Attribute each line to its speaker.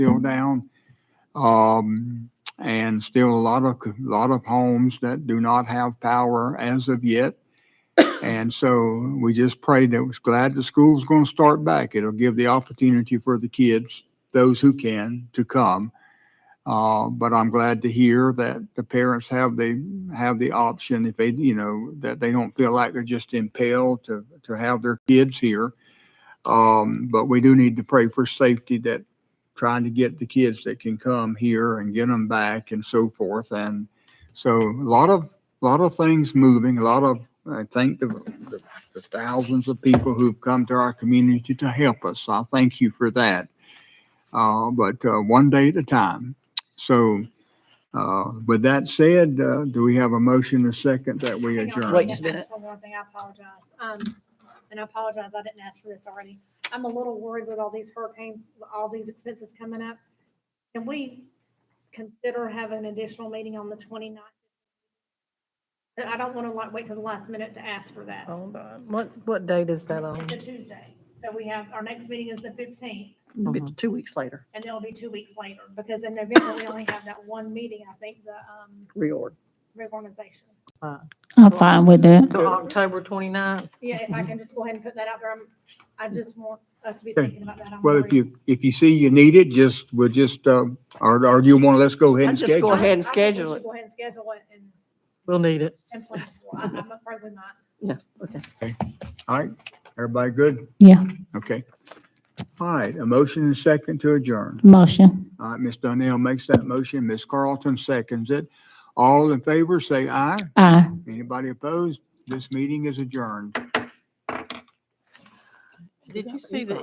Speaker 1: still down. Um, and still a lot of, a lot of homes that do not have power as of yet. And so we just prayed that was glad the school's going to start back. It'll give the opportunity for the kids, those who can, to come. Uh, but I'm glad to hear that the parents have the, have the option if they, you know, that they don't feel like they're just impelled to, to have their kids here. Um, but we do need to pray for safety that trying to get the kids that can come here and get them back and so forth. And so a lot of, a lot of things moving, a lot of, I thank the, the- the thousands of people who've come to our community to help us. I thank you for that. Uh, but, uh, one day at a time. So, uh, with that said, uh, do we have a motion a second that we
Speaker 2: Hang on,
Speaker 1: adjourn?
Speaker 3: Wait
Speaker 2: I
Speaker 3: just a
Speaker 2: can
Speaker 3: minute.
Speaker 2: ask One more thing, I apologize. Um, and I apologize, I didn't ask for this already. I'm a little worried with all these hurricane, all these expenses coming up. Can we consider having an additional meeting on the 29th? I don't want to like wait till the last minute to ask for that.
Speaker 3: Hold on, what, what date is that on?
Speaker 2: It's a Tuesday, so we have, our next meeting is the fifteenth,
Speaker 3: It's Two weeks later,
Speaker 2: and it'll be two weeks later, because in November, we only have that one meeting, I think, the, um,
Speaker 3: reorg.
Speaker 2: reorganization.
Speaker 4: I'm fine with that.
Speaker 3: So October 29th?
Speaker 2: Yeah, if I can just go ahead and put that out there, I'm, I just want us to be
Speaker 1: Mhm. Okay.
Speaker 2: thinking about that. I'm
Speaker 1: Well, if
Speaker 2: worried.
Speaker 1: you, if you see you need it, just, we'll just, uh, or, or do you want to, let's go ahead and
Speaker 3: I'd just
Speaker 1: schedule?
Speaker 3: go
Speaker 1: it?
Speaker 3: ahead. and
Speaker 2: I think we
Speaker 3: schedule
Speaker 2: should
Speaker 3: it.
Speaker 2: Go ahead and schedule it and,
Speaker 3: We'll need it.
Speaker 2: and plan for it. I'm afraid we might.
Speaker 1: All right, everybody good?
Speaker 4: Yeah,
Speaker 1: Okay. All right, a motion and second to adjourn.
Speaker 4: motion.
Speaker 1: All right, Ms. Donnell makes that motion, Ms. Carlton seconds it. All in favor, say aye.
Speaker 4: Aye.
Speaker 1: Anybody opposed? This meeting is adjourned.
Speaker 5: Did you see the